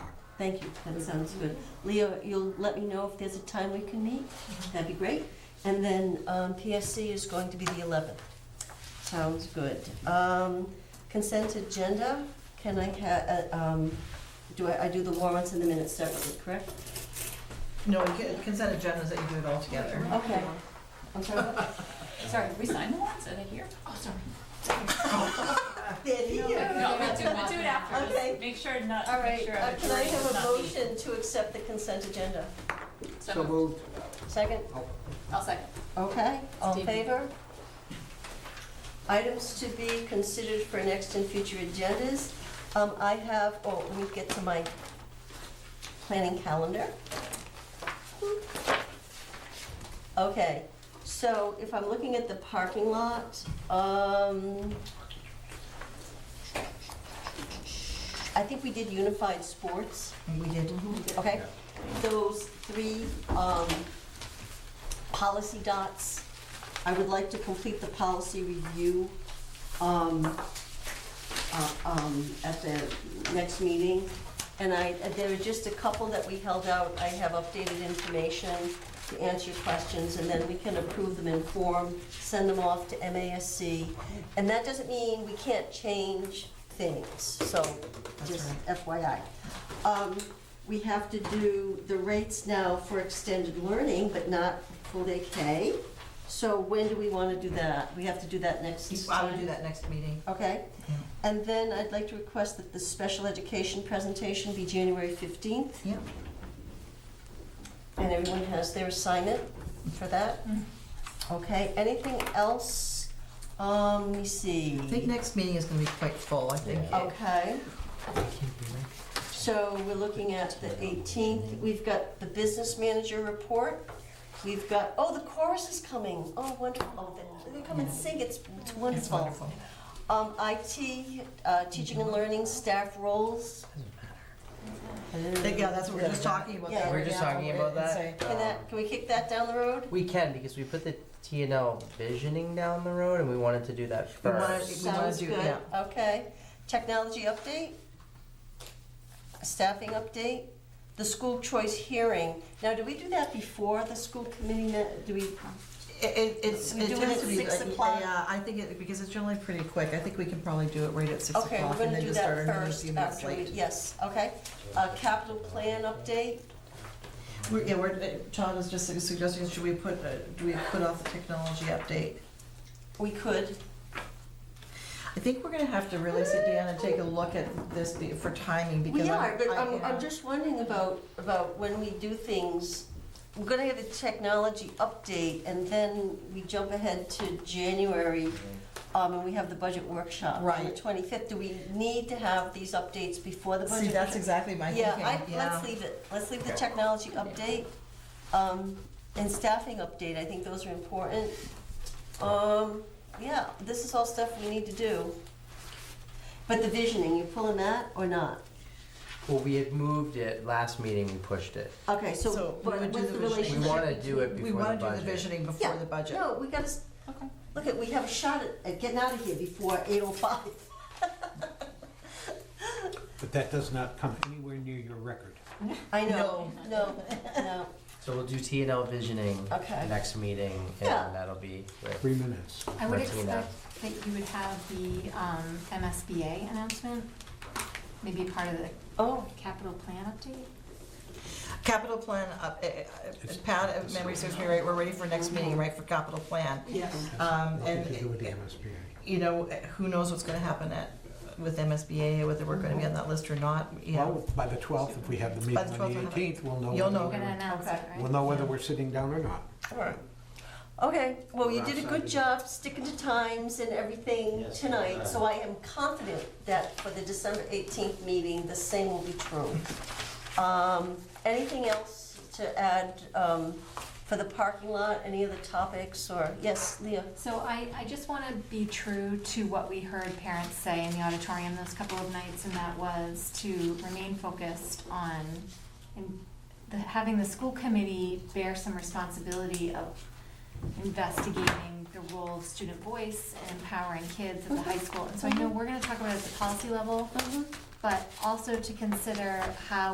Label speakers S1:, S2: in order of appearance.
S1: Thank you, that sounds good. Leo, you'll let me know if there's a time we can meet, that'd be great. And then um, PSC is going to be the 11th. Sounds good. Um, Consent agenda, can I have, do I, I do the warrants and the minutes separately, correct?
S2: No, c- consent agenda is that you do it all together.
S1: Okay. I'm sorry.
S3: Sorry, did we sign the ones? Are they here? Oh, sorry.
S1: They're here.
S3: No, we'll do, we'll do it after.
S1: Okay.
S3: Just Make sure not,
S1: All
S3: make
S1: right,
S3: sure.
S1: uh,
S3: the
S1: can I
S3: jury
S1: have
S3: does
S1: a
S3: not leave.
S1: motion to accept the consent agenda?
S3: So
S4: So
S3: moved.
S4: moved.
S1: Second?
S3: I'll second.
S1: Okay, all in
S3: Stevie.
S1: favor? Items to be considered for next and future agendas. Um, I have, oh, let me get to my planning calendar. Okay, so if I'm looking at the parking lot, um, I think we did unified sports.
S2: We did.
S1: Okay, those three um, policy dots, I would like to complete the policy review um, uh, um, at the next meeting. And I, there are just a couple that we held out. I have updated information to answer questions, and then we can approve them in form, send them off to MASC. And that doesn't mean we can't change things, so just FYI. Um, We have to do the rates now for extended learning, but not full day K. So when do we want to do that? We have to do that next time?
S2: I would do that next meeting.
S1: Okay,
S2: Yeah.
S1: and then I'd like to request that the special education presentation be January 15th,
S2: Yeah.
S1: and everyone has their assignment for that.
S3: Mm.
S2: Mm-hmm.
S1: Okay, anything else? Um, let me see.
S2: I think next meeting is gonna be quite full, I think.
S1: Okay. So we're looking at the 18th, we've got the business manager report, we've got, oh, the chorus is coming, oh, wonderful, Oh, they- they come and sing, it's Oh, it's
S2: It's
S1: wonderful.
S2: wonderful.
S1: Um, IT, uh, teaching and learning staff roles.
S2: I think, Yeah, that's what we we're just talking about.
S1: Yeah.
S2: that.
S1: We
S5: were just talking about that.
S1: Can that, can we kick that down the road?
S5: We can because we put the T and L visioning down the road, and we wanted to do that
S2: We wanna-
S5: first.
S2: we wanna
S1: Sounds
S2: do,
S1: good,
S2: yeah.
S1: okay. Technology update? Staffing update? The school choice hearing. Now, do we do that before the school committee, met? do we,
S2: It, it- it's,
S1: We
S2: it
S1: do it
S2: tends
S1: at
S2: to be,
S1: six
S2: like,
S1: o'clock?
S2: yeah, I think it, because it's generally pretty quick, I think we can probably do it right at six
S1: okay, we're
S2: o'clock and
S1: gonna
S2: then
S1: do
S2: just start
S1: that
S2: another
S1: first
S2: few minutes
S1: after we,
S2: late.
S1: yes, okay. Uh, capital plan update?
S2: We're, yeah, we're, uh, Todd was just suggesting, should we put, uh, do we put off the technology update?
S1: We could,
S2: I think we're gonna have to really sit down and take a look at this be- for timing because.
S1: We
S2: I'm-
S1: are, but
S2: I-
S1: I'm,
S2: yeah.
S1: I'm just wondering about, about when we do things, we're gonna have a technology update, and then we jump ahead to January, um, and we have the budget workshop on the
S2: Right.
S1: twenty-fifth. Do we need to have these updates before the budget?
S2: See, that's
S1: workshop?
S2: exactly my thinking,
S1: Yeah,
S2: yeah.
S1: I, let's leave it, let's leave the
S4: Okay.
S1: technology update, um, and staffing update, I think those are important. Um, yeah, this is all stuff we need to do. But the visioning, you pulling that or not?
S5: Well, we had moved it last meeting. We pushed it.
S1: Okay, so
S2: So
S1: what-
S2: we would do
S1: what's the
S2: the visioning.
S5: We
S1: relationship?
S5: want to do it
S2: We
S5: before
S2: wanna
S5: the
S2: do the
S5: budget.
S2: visioning
S1: Yeah,
S2: before the budget.
S1: No, we gotta, s-
S3: Okay.
S1: look at, we have a shot at, at getting out of here before eight oh five.
S6: But that does not come anywhere near your record.
S1: I know, no, no,
S5: So we'll do T and L visioning
S1: Okay.
S5: next meeting, and
S1: Yeah.
S5: that'll be with
S6: Three minutes.
S7: I would
S5: Martina.
S7: expect that you would have the um, MSBA announcement, maybe part of the
S1: oh,
S7: capital plan update?
S2: Capital plan, up- eh, eh, eh, Pat, if memory serves me right, we're ready for next meeting, right, for capital plan.
S1: yes.
S2: Um,
S6: Nothing to do with the
S2: and,
S6: MSBA.
S2: you know, eh, who knows what's gonna happen at, with MSBA, whether we're gonna be on that list or not, you know.
S6: Well, by the 12th, if we have the meeting
S2: By the
S6: on
S2: 12th, we'll
S6: the
S2: have it.
S6: 18th, we'll know.
S2: You'll
S6: whether
S2: know.
S7: We're
S6: we're-
S7: gonna announce it,
S1: Okay.
S7: right?
S6: We'll know whether we're sitting down or not.
S1: Alright. Okay, well, you did a good job sticking to times and everything tonight, so I am confident that for the December eighteenth meeting, the same will be true. Um, anything else to add, um, for the parking lot, any other topics, or, yes, Leah?
S7: So I, I just want to be true to what we heard parents say in the auditorium those couple of nights, and that was to remain focused on in the, having the school committee bear some responsibility of investigating the role of student voice and empowering kids at the high school. And so I know we're going to talk about it at the policy level, but also to consider how